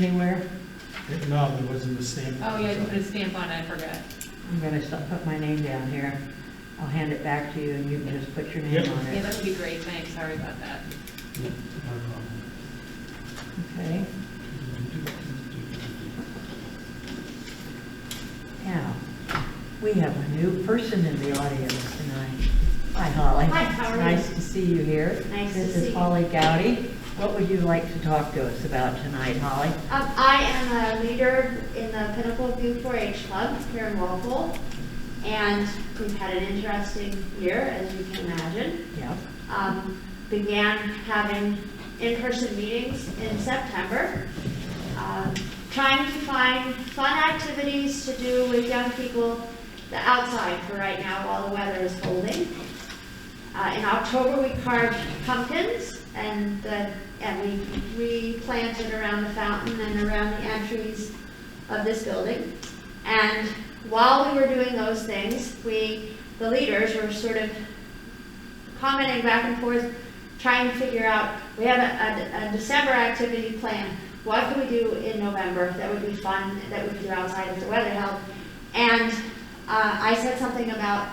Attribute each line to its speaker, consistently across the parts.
Speaker 1: anywhere.
Speaker 2: No, there wasn't a stamp.
Speaker 3: Oh, yeah, you put a stamp on it, I forgot.
Speaker 1: I'm gonna s- put my name down here. I'll hand it back to you and you can just put your name
Speaker 2: Yep.
Speaker 1: on
Speaker 3: Yeah,
Speaker 1: it.
Speaker 3: that would be great, thanks, sorry about that.
Speaker 2: Yeah, no problem.
Speaker 1: Okay, now, we have a new person in the audience tonight. Hi Holly.
Speaker 4: Hi, how are you?
Speaker 1: Nice to see you here.
Speaker 4: Nice to
Speaker 1: This
Speaker 4: see
Speaker 1: is
Speaker 4: you.
Speaker 1: Holly Gowdy. What would you like to talk to us about tonight, Holly?
Speaker 4: Um, I am a leader in the Pinnacle View 4-H Club here in Walpole, and we've had an interesting year, as you can imagine.
Speaker 1: Yep.
Speaker 4: Um, began having in-person meetings in September, um, trying to find fun activities to do with young people the outside for right now while the weather is holding. Uh, in October, we carved pumpkins and the, and we replanted around the fountain and around the entries of this building. And while we were doing those things, we, the leaders were sort of commenting back and forth, trying to figure out, we have a, a- a December activity plan. What can we do in November that would be fun, that we could do outside if the weather held? And, uh, I said something about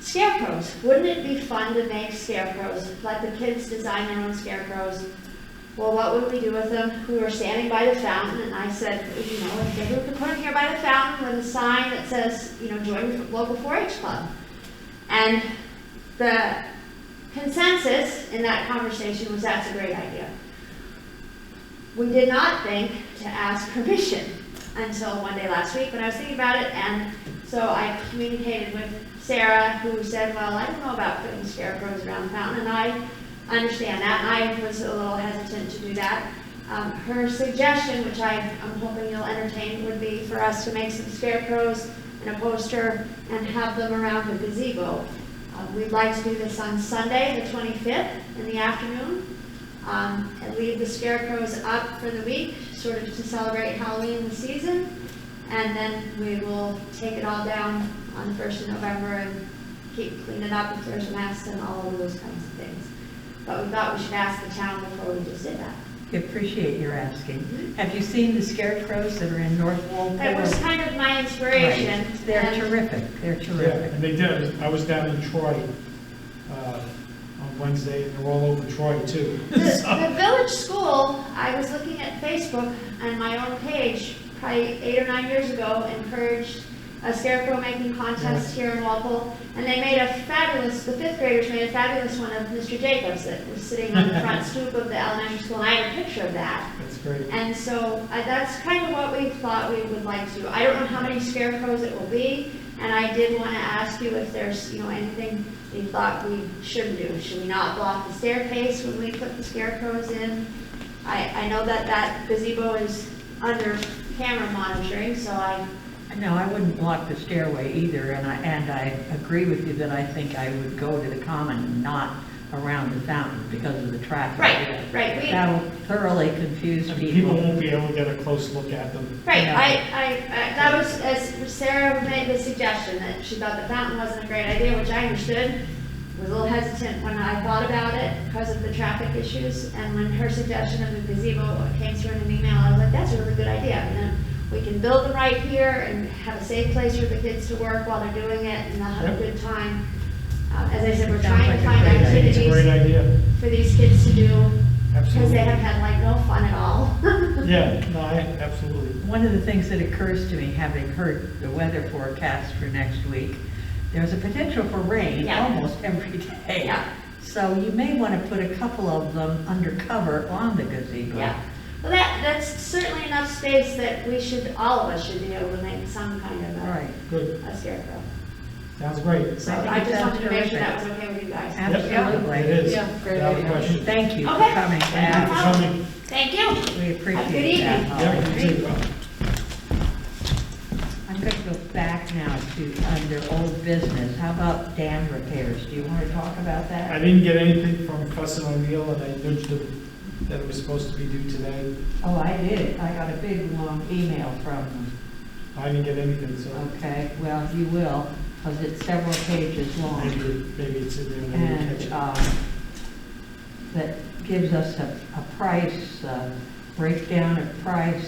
Speaker 4: scarecrows. Wouldn't it be fun to make scarecrows? Let the kids design their own scarecrows. Well, what would we do with them? We were standing by the fountain, and I said, you know, if maybe we could put them here by the fountain with a sign that says, you know, join local 4-H club. And the consensus in that conversation was that's a great idea. We did not think to ask permission until one day last week when I was thinking about it, and so I communicated with Sarah, who said, well, I don't know about putting scarecrows around the fountain, and I understand that, and I was a little hesitant to do that. Um, her suggestion, which I, I'm hoping you'll entertain, would be for us to make some scarecrows and a poster and have them around the gazebo. Uh, We'd like to do this on Sunday, the 25th, in the afternoon, um, and leave the scarecrows up for the week, sort of to celebrate Halloween the season. And then we will take it all down on the first of November and keep cleaning up if there's a mess and all of those kinds of things. But we thought we should ask the town before we just did that.
Speaker 1: We Appreciate your asking. Have you seen the scarecrows that are in North Walpole?
Speaker 4: Mm-hmm. That was kind of my inspiration.
Speaker 1: Right. They're
Speaker 4: and-
Speaker 1: terrific, they're
Speaker 2: Yeah,
Speaker 1: terrific.
Speaker 2: and they did, I was down in Troy, uh, on Wednesday, and they're all over Troy too.
Speaker 4: The, the village school, I was looking at Facebook on my own page, probably eight or nine years ago, encouraged a scarecrow making contest here in Walpole, and they made a fabulous, the fifth graders made a fabulous one of Mr. Jacobs that was sitting on the front stoop of the elementary school, and I have a picture of that.
Speaker 2: That's great.
Speaker 4: And so uh, that's kind of what we thought we would like to. do. I don't know how many scarecrows it will be, and I did want to ask you if there's, you know, anything you thought we shouldn't do. Should we not block the staircase when we put the scarecrows in? I, I know that that gazebo is under camera monitoring, so I,
Speaker 1: No, I wouldn't block the stairway either, and I, and I agree with you that I think I would go to the common and not around the fountain because of the traffic.
Speaker 4: right, right, we, right,
Speaker 1: That'll thoroughly confuse
Speaker 2: And people
Speaker 1: people.
Speaker 2: won't be able to get a close look at them.
Speaker 4: I, I, I- that was, as Sarah made the suggestion, that she thought the fountain wasn't a great idea, which I understood. was a little hesitant when I thought about it because of the traffic issues, and when her suggestion of the gazebo came through in an email, I was like, that's a really good idea, and then we can build them right here and have a safe place for the kids to work while they're doing it, and they'll have a good time. Uh, As I said, we're
Speaker 1: Sounds
Speaker 4: trying
Speaker 1: like a
Speaker 4: to find
Speaker 1: great idea.
Speaker 2: It's a great
Speaker 4: activities
Speaker 2: idea,
Speaker 4: for these kids to do, because they
Speaker 2: absolutely.
Speaker 4: have had like no fun at all.
Speaker 2: Yeah, no, I, absolutely.
Speaker 1: One of the things that occurs to me, having heard the weather forecast for next week, there's a potential for rain
Speaker 4: Yeah.
Speaker 1: almost every day.
Speaker 4: Yeah.
Speaker 1: So you may want to put a couple of them undercover on the gazebo.
Speaker 4: Yeah, well, that, that's certainly enough space that we should, all of us should be able to make some kind of
Speaker 1: Right.
Speaker 4: a-
Speaker 2: Good,
Speaker 4: a scarecrow.
Speaker 2: sounds great.
Speaker 4: So
Speaker 1: I think
Speaker 4: I just
Speaker 1: that's
Speaker 4: wanted to make
Speaker 1: terrific.
Speaker 4: sure that was okay with you guys.
Speaker 2: Yep,
Speaker 1: Absolutely.
Speaker 2: It is.
Speaker 3: Yeah, great
Speaker 2: Without
Speaker 3: idea.
Speaker 2: question.
Speaker 1: Thank you for
Speaker 4: Okay.
Speaker 1: coming.
Speaker 2: Thank you for
Speaker 1: Yeah,
Speaker 2: coming.
Speaker 4: Thank you.
Speaker 1: We appreciate
Speaker 4: evening.
Speaker 1: that, Holly.
Speaker 2: Yeah, you too.
Speaker 1: I'm going to go back now to under old business. How about dam repairs? Do you want to talk about
Speaker 2: I
Speaker 1: that?
Speaker 2: didn't get anything from Fuss and O'Neill, and I nudged them that it was supposed to be due today.
Speaker 1: Oh, I did. I got a big, long email from them.
Speaker 2: I didn't get anything, so
Speaker 1: Okay, well, you will, because it's several pages long. um,
Speaker 2: maybe, maybe it's in there, and I didn't catch
Speaker 1: And
Speaker 2: it.
Speaker 1: um, that gives us a a price uh, breakdown of price